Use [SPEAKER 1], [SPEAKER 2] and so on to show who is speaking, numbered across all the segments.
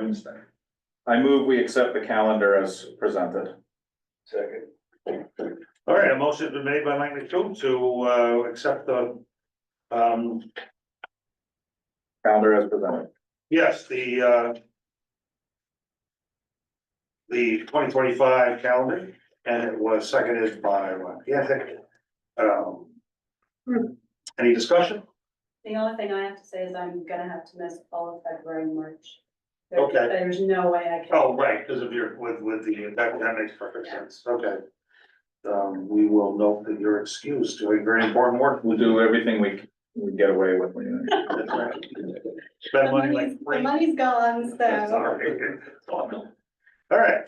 [SPEAKER 1] Wednesday. I move we accept the calendar as presented.
[SPEAKER 2] Second. All right, a motion's been made by Mike McDonald to uh accept the um,
[SPEAKER 1] Calendar as presented.
[SPEAKER 2] yes, the uh the twenty twenty-five calendar, and it was seconded by, uh, yeah, I think, um any discussion?
[SPEAKER 3] The only thing I have to say is I'm gonna have to miss all of February and March. There-
[SPEAKER 2] Okay.
[SPEAKER 3] There's no way I can.
[SPEAKER 2] Oh, right, because of your, with, with the, that, that makes perfect sense, okay. Um, we will note that you're excused doing very important work.
[SPEAKER 1] We'll do everything we, we get away with. We
[SPEAKER 2] That's right.
[SPEAKER 3] The
[SPEAKER 2] Spend money like
[SPEAKER 3] money's, the
[SPEAKER 2] crazy.
[SPEAKER 3] money's gone,
[SPEAKER 2] That's all
[SPEAKER 3] so.
[SPEAKER 2] right. All right,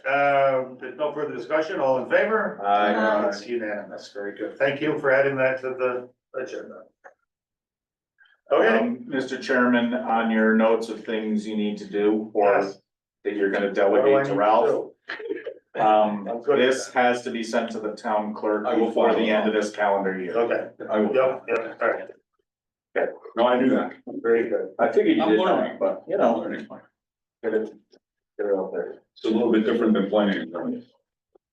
[SPEAKER 2] um, there's no further discussion, all in favor?
[SPEAKER 1] Aye.
[SPEAKER 3] Aye.
[SPEAKER 2] It's unanimous, very good, thank you for adding that to the agenda. Okay,
[SPEAKER 1] Um, Mr. Chairman, on your notes of things you need to do or
[SPEAKER 2] Yes.
[SPEAKER 1] that you're gonna
[SPEAKER 2] what do I
[SPEAKER 1] delegate
[SPEAKER 2] need
[SPEAKER 1] to
[SPEAKER 2] to
[SPEAKER 1] Ralph.
[SPEAKER 2] do?
[SPEAKER 1] Um,
[SPEAKER 2] I'm good.
[SPEAKER 1] this has to be sent to the town clerk
[SPEAKER 4] I will
[SPEAKER 1] before the
[SPEAKER 4] follow
[SPEAKER 1] end of this calendar year.
[SPEAKER 2] Okay,
[SPEAKER 4] I will,
[SPEAKER 2] yep, yep, all right,
[SPEAKER 4] no, I knew that.
[SPEAKER 2] very good,
[SPEAKER 1] I figured you
[SPEAKER 4] I'm
[SPEAKER 1] did
[SPEAKER 4] learning.
[SPEAKER 1] that, but you
[SPEAKER 4] I'm
[SPEAKER 1] know,
[SPEAKER 4] learning.
[SPEAKER 1] get it, get it out there.
[SPEAKER 4] It's a little bit different than planning and zoning.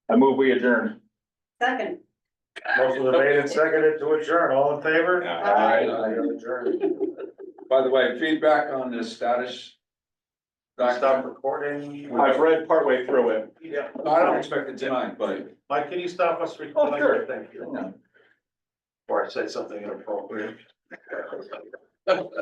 [SPEAKER 1] I move we adjourn.
[SPEAKER 3] Second,
[SPEAKER 2] motion was made and seconded to adjourn, all in favor?
[SPEAKER 3] Aye.
[SPEAKER 2] You're adjourned.
[SPEAKER 4] By the way, feedback on the status.
[SPEAKER 2] Stop recording.
[SPEAKER 1] I've read partway through it.
[SPEAKER 2] Yeah,
[SPEAKER 4] I don't expect it tonight, but.
[SPEAKER 2] Mike, can you stop us
[SPEAKER 1] Oh,
[SPEAKER 2] recording?
[SPEAKER 1] sure.
[SPEAKER 2] Thank you. Or I said something inappropriate.